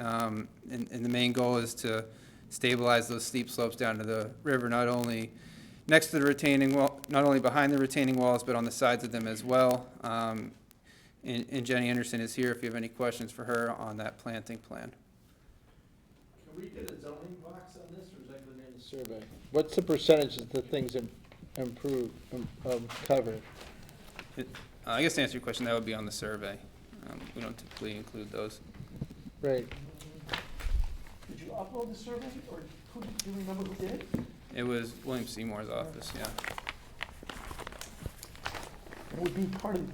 Um, And and the main goal is to stabilize those steep slopes down to the river, not only next to the retaining wall, not only behind the retaining walls, but on the sides of them as well. Um, And and Jenny Anderson is here if you have any questions for her on that planting plan. Can we get a zoning box on this, or is that going in the survey? What's the percentage of the things im- improved, um, um, covered? Uh, I guess to answer your question, that would be on the survey. Um, We don't typically include those. Right, Did you upload the survey, or who, do you remember who did it? It was William Seymour's office, yeah. It would be part of,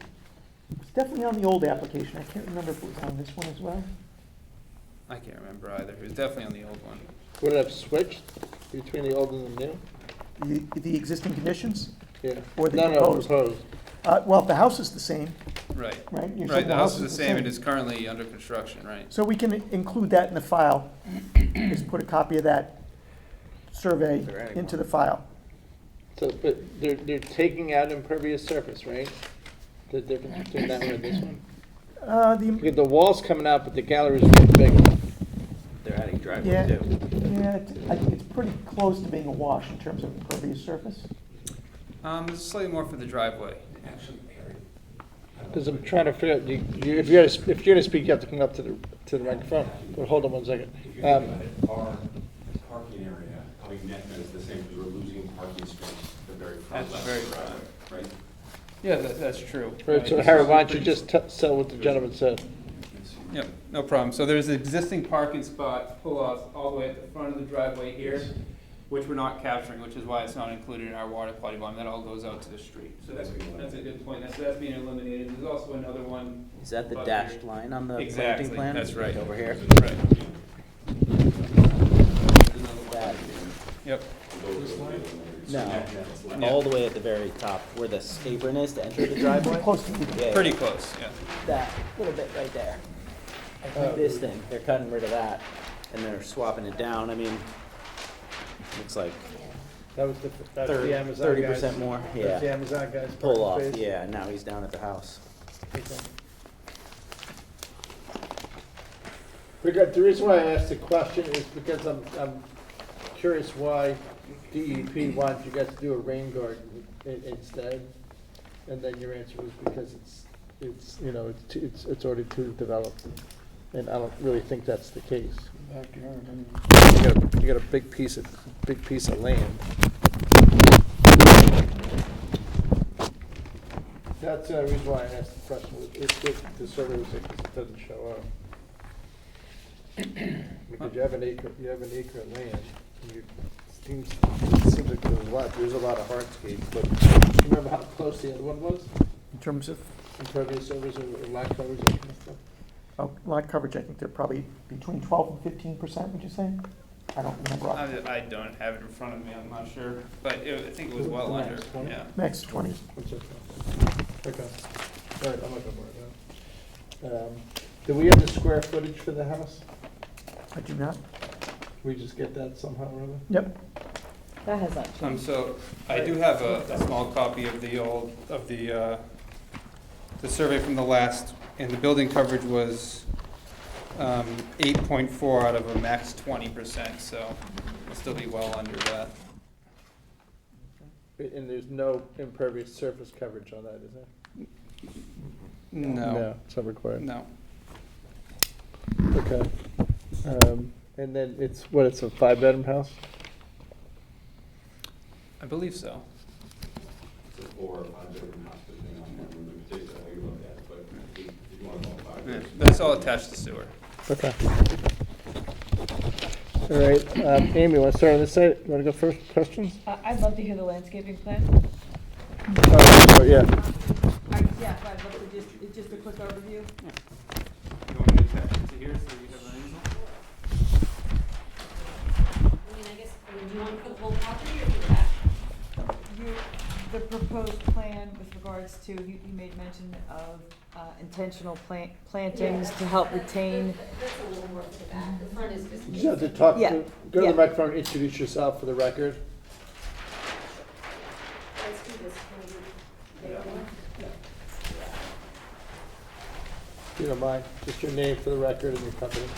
it's definitely on the old application, I can't remember if it was on this one as well. I can't remember either. It was definitely on the old one. would it have switched between the old and the new? The, the existing conditions? Yeah. Or the No, no, proposed. proposed. Uh, well, if the house is the same, Right. right? you said Right, the house is the same. It is currently under construction, right? So we can include that in the file, just put a copy of that survey into the file. So, but they're, they're taking out impervious surface, right? The difference between that one and this one? Uh, the, Because the wall's coming out, but the gallery's really big. They're adding driveway yeah, too. yeah, it's, I think it's pretty close to being a wash in terms of impervious surface. Um, there's slightly more for the driveway. Because I'm trying to figure out, you, you, if you're, gonna sp- if you're gonna speak, you have to come up to the, to the microphone. But hold on one second. If you Um, think about it, our parking area, having net is the same, because we're losing parking space at the very At front the left. very Right? Yeah, that, that's true. Right, so Howard, why don't you just te- tell what the gentleman said? Yep, no problem. So there's an existing parking spot, pull-offs, all the way at the front of the driveway here, which we're not capturing, which is why it's not included in our water quality bond. That all goes out to the street. So that's, that's a good point. That's, that's being eliminated. There's also another one. Is that the above here. dashed line Uh, on the Exactly, planting plan? that's right. Over here? Right. There's another one. That, Yep, no, all the way at the very top, where the apron is to enter the driveway? Pretty close to the Yeah, pretty close, yeah. That, little bit right there. I think This thing, Uh, they're cutting rid of that, and they're swapping it down, I mean, looks like That was the, that's thirty, thirty percent more, yeah. Amazon guys. Pull off, yeah, now he's down at the house. Because the reason why I asked the question is because I'm, I'm curious why DEP wanted you guys to do a rain garden in- instead. And then your answer was because it's, it's, you know, it's, too- it's, it's already too developed. And I don't really think that's the case. You got, a- you got a big piece of, big piece of land. That's the reason why I asked the question, was if, if the survey was, it doesn't show up. Because you have an acre, you have an acre of land, and you, it seems, it seems like there's a lot, there's a lot of hardscape, but do you remember how close the other one was? In terms of Impervious surface or lot coverage, that kind of stuff? uh, lot coverage, I think they're probably between twelve and fifteen percent, would you say? I don't remember. off- I, I don't have it in front of me, I'm not sure, but it, I think it was well under, yeah. Max twenty. That's okay. Okay, all right, I'm not gonna worry about it. Um, Do we have the square footage for the house? I do not. Can we just get that somehow or other? Yep. That has not Um, changed. so I do have a, a small copy of the old, of the, uh, the survey from the last, and the building coverage was, um, eight point four out of a max twenty percent, so we'll still be well under that. And there's no impervious surface coverage on that, is there? No, It's not required. no, Okay. Um, And then it's, what, it's a five-bedroom house? I believe so. It's a four or five bedroom house, depending on the room, the particular, how you look at it, but if if you want to go five. Yeah, bedrooms, That's all attached to sewer. Okay. All right, um, Amy, want to start on this side? You want to go first, questions? I- I'd love to hear the landscaping plan. Oh, Yeah. I- Yeah, I'd love to just, it's just a quick overview. You want me to attach it to here so you have an easel? I mean, I guess, I mean, do you want to put the whole property or do you have? You, the proposed plan with regards to, you, you made mention of uh, intentional plant, plantings to help retain. That's a little more to the back, the front is just. Just have to talk, Yeah, to- go to yeah. the microphone, and introduce yourself for the record. Let's do this. Can we do that one? If you don't mind, just your name for the record and your company.